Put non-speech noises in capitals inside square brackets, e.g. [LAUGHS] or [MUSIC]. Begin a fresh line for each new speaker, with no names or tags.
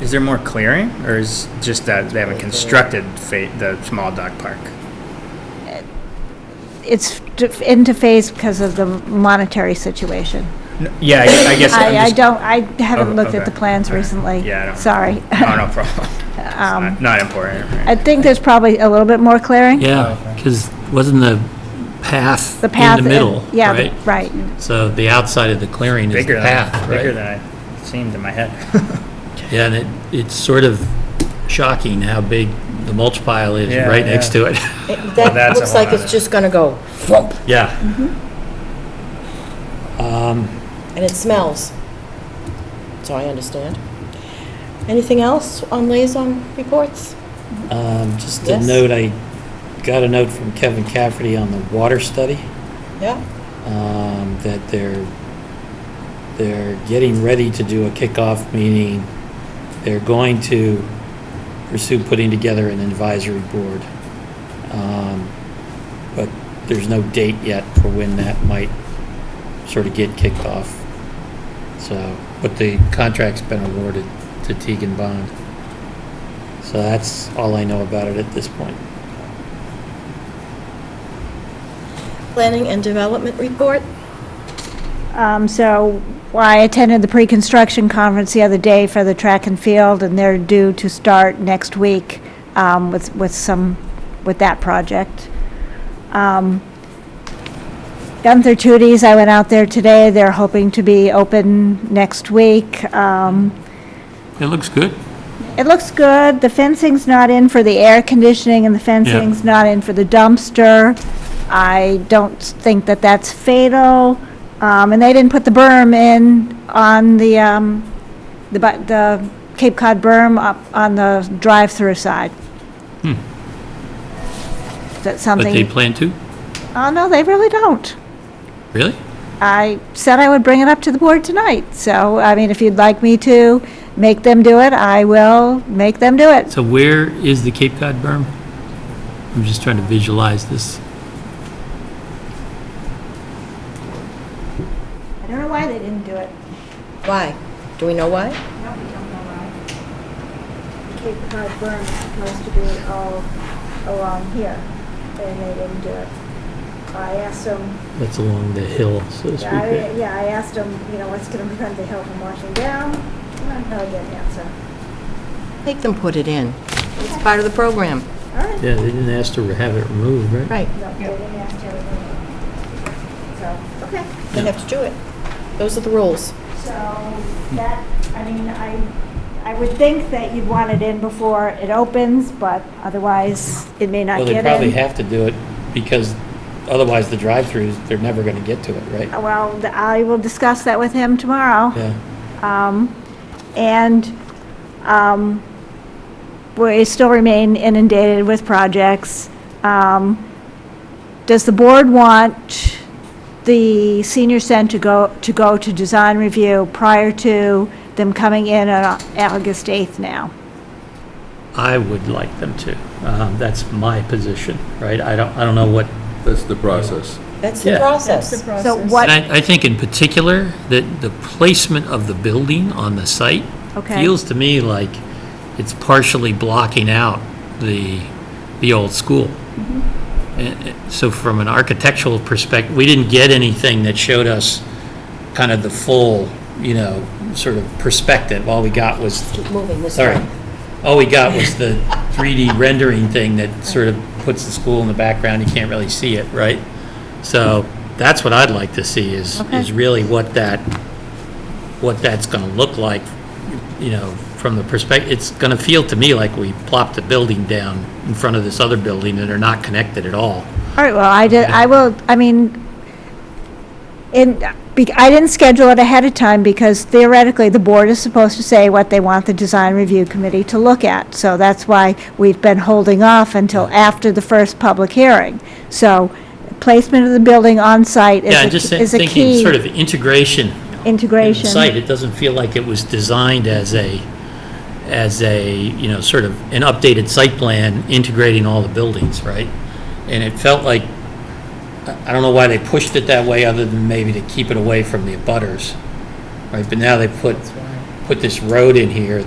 Is there more clearing, or is just that they haven't constructed fa- the small dog park?
It's d- into phase because of the monetary situation.
N- Yeah, I gue- I guess I'm
I, I
just.
don't, I haven't
Oh,
looked at the
okay.
plans
All right.
recently.
Yeah, I don't-
Sorry.
[LAUGHS]
[LAUGHS]
Oh, no problem. It's
Um,
Not not important. right?
I think there's probably a little bit more clearing.
Oh,
Yeah, because wasn't the path
The
in
path.
the
and-
middle,
Yeah,
right?
the- right.
So the outside of the clearing is the
Bigger
path,
than, bigger
right?
than I seemed in my head.
Yeah, and it, it's sort of shocking how big the mulch pile is
Yeah,
right next
yeah.
to it. [LAUGHS]
It-
Well,
That
that's a
looks
whole
like it's
nother-
just gonna go thump,
Yeah. Um,
and it smells. So I understand. Anything else on liaison reports?
um, just a
Yes.
note, I got a note from Kevin Cafferty on the water study.
Yeah?
um, that they're, they're getting ready to do a kickoff meeting. They're going to pursue putting together an advisory board. Um, But there's no date yet for when that might sort of get kicked off. So, but the contract's been awarded to Teagan Bond. So that's all I know about it at this point.
Planning and development report?
Um, so I attended the pre-construction conference the other day for the track and field, and they're due to start next week, um, with, with some, with that project. Um, Gunther Tooties, I went out there today. They're hoping to be open next week. Um,
It looks good.
it looks good. The fencing's not in for the air conditioning and the fencing's not in for the dumpster. I don't think that that's fatal. Um, and they didn't put the berm in on the, um, the, bu- the Cape Cod berm up on the drive-through side. That's
Hmm. But they
something,
plan to?
oh no, they really don't.
Really?
I said I would bring it up to the board tonight. So, I mean, if you'd like me to make them do it, I will make them do it.
So where is the Cape Cod berm? I'm just trying to visualize this.
I don't know why they didn't do it.
Why? Do we know why?
Cape Cod berm is supposed to be all along here, and they didn't do it. I asked them,
That's along the hill, so to speak.
yeah, I-
right?
yeah, I asked them, you know, what's gonna prevent the hill from washing down? And I get an answer.
Make them put it in. It's part of the program.
All right,
Yeah, they didn't ask to have it removed, right?
Right.
no, they didn't ask to. So, okay.
They have to do it. Those are the rules.
So that, I mean, I, I would think that you'd want it in before it opens, but otherwise, it may not
Well,
get
they
in.
probably have to do it because otherwise the drive-throughs, they're never going to get to it, right?
Well, th- I will discuss that with him tomorrow.
Yeah.
Um, And um, we still remain inundated with projects. Um, Does the board want the senior center to go, to go to design review prior to them coming in on Au- August 8th now?
I would like them to. Um, That's my position, right? I don't, I don't know what,
That's the process.
That's the
Yeah.
process.
So
and
what,
I, I think in particular, that the placement of the building on the site
okay,
feels to me like it's partially blocking out the, the old school.
Mm-hmm.
And- and So from an architectural perspective, we didn't get anything that showed us kind of the full, you know, sort of perspective. All we got was,
Keep moving this
sorry,
way.
all we got was the 3D rendering thing that sort of puts the school in the background, you can't really see it, right? So that's what I'd like to see is, is
Okay.
really what that, what that's going to look like, you know, from the perspective, it's going to feel to me like we plopped a building down in front of this other building and are not connected at all.
all right, well, I did, I will, I mean, in, be- I didn't schedule it ahead of time because theoretically, the board is supposed to say what they want the design review committee to look at. So that's why we've been holding off until after the first public hearing. So placement of the building on site
Yeah, I'm just
is a- is a
thinking
key
sort of integration in the
integration.
site. It doesn't feel like it was designed as a, as a, you know, sort of an updated site plan integrating all the buildings, right? And it felt like, I I don't know why they pushed it that way, other than maybe to keep it away from the abutters, right? But now they put, put this road in here